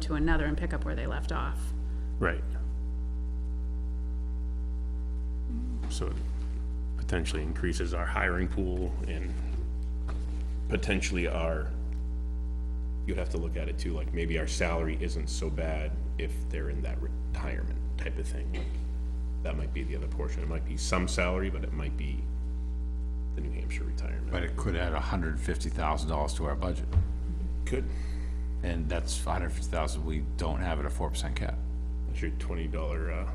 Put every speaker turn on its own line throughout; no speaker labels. to another and pick up where they left off.
Right. So it potentially increases our hiring pool and potentially our, you'd have to look at it too, like maybe our salary isn't so bad if they're in that retirement type of thing. Like, That might be the other portion. It might be some salary, but it might be the New Hampshire retirement.
But it could add hundred and fifty thousand dollars to our budget,
Could,
and that's $150,000 we don't have at a four percent cap.
that's your twenty dollar, uh,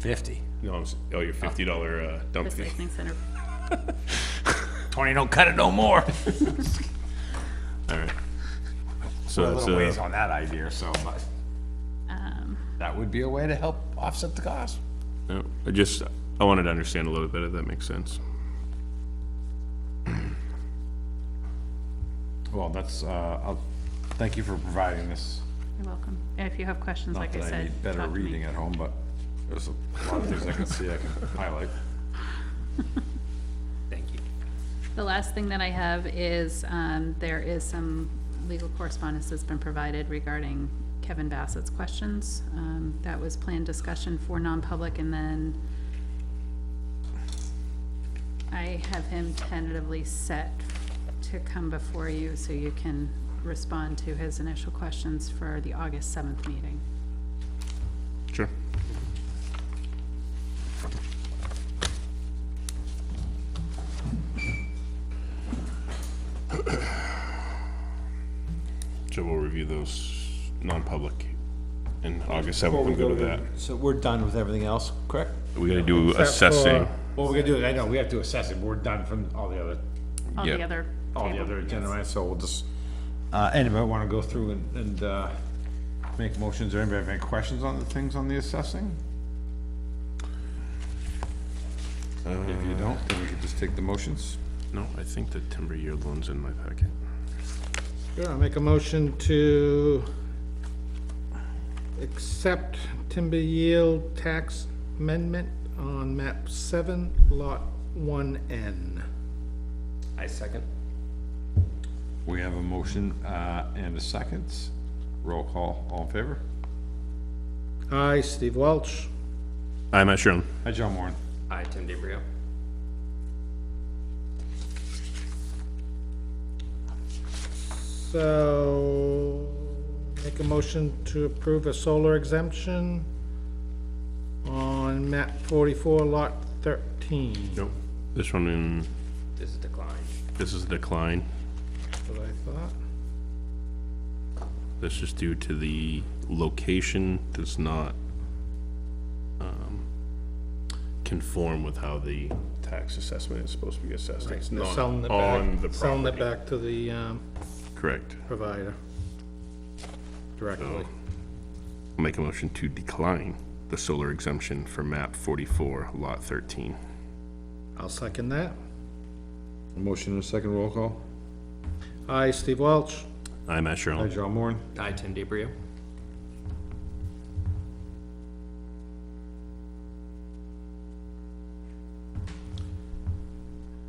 Fifty.
no, I'm s- oh, your fifty dollar, uh, dump fee.
Recycling center,
Twenty don't cut it no more.
All right.
A
So it's,
little ways
uh,
on that idea, so, but
um,
that would be a way to help offset the cost.
no, I just, I wanted to understand a little bit if that makes sense.
Well, that's, uh, I'll, thank you for providing this.
you're welcome. If you have questions,
Not
like I
that I
said,
need
talk
better
to me.
reading at home, but there's a lot of things I can see I can highlight.
Thank you.
The last thing that I have is, um, there is some legal correspondence that's been provided regarding Kevin Bassett's questions. Um, that was planned discussion for non-public and then I have him tentatively set to come before you so you can respond to his initial questions for the August seventh meeting.
Sure. So we'll review those non-public in August
Before
seventh
we
and go to that.
the- So we're done with everything else, correct?
We gotta do assessing.
Well, we're gonna do it, I know, we have to assess it, we're done from all the other,
All the
Yep.
other.
all the
table-
other
yes.
agenda items, so we'll just, uh, anybody wanna go through and, and, uh, make motions, or anybody have any questions on the things on the assessing?
If you don't, then we could just take the motions.
No, I think the timber yield loan's in my packet.
Sure, I'll make a motion to accept timber yield tax amendment on map seven, lot one N.
I second.
We have a motion, uh, and a second. Roll call, all in favor?
Aye, Steve Welch.
Aye, Matt Sherlin.
Hi, John Warren.
I, Tim DeBrio.
So, make a motion to approve a solar exemption on map forty-four, lot thirteen.
Nope. This one in,
This is declined.
this is decline.
That's what I thought.
This is due to the location does not um, conform with how the tax assessment is supposed to be assessed. It's
They're
not
selling it back-
on the
Selling it
property.
back to the, um,
Correct.
provider
Oh.
directly.
I'll Make a motion to decline the solar exemption for map 44, lot 13.
I'll second that.
Motion and a second roll call.
Aye, Steve Welch.
I'm Matt
Hi,
Sherlin.
John Warren.
I, Tim DeBrio.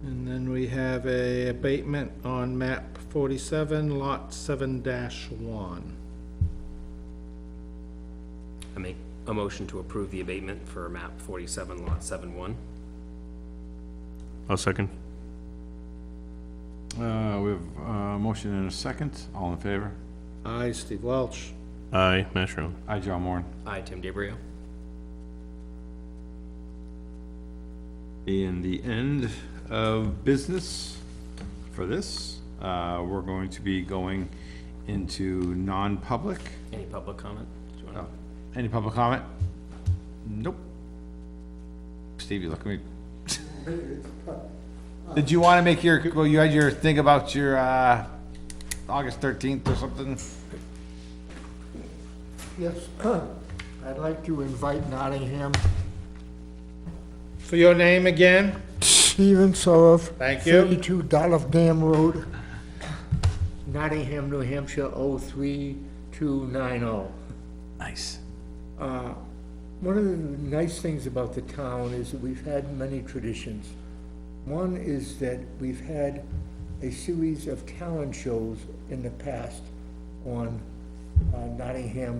And then we have a abatement on map forty-seven, lot seven dash one.
I make a motion to approve the abatement for map forty-seven, lot seven one.
I'll second.
Uh, we have, uh, motion and a second. All in favor?
Aye, Steve Welch.
Aye, Matt Sherlin.
Hi, John Warren.
I, Tim DeBrio.
In the end of business for this, uh, we're going to be going into non-public.
Any public comment? Do you wanna-
Any public comment? Nope. Steve, you look at me. Did you wanna make your, well, you had your thing about your, uh, August thirteenth or something?
Yes, I'd like to invite Nottingham,
For your name again,
Stephen Sorov.
Thank you.
32 Dolph Dam Road, Nottingham, New Hampshire, 03290.
Nice.
oh. Uh, One of the nice things about the town is that we've had many traditions. One is that we've had a series of talent shows in the past on uh, Nottingham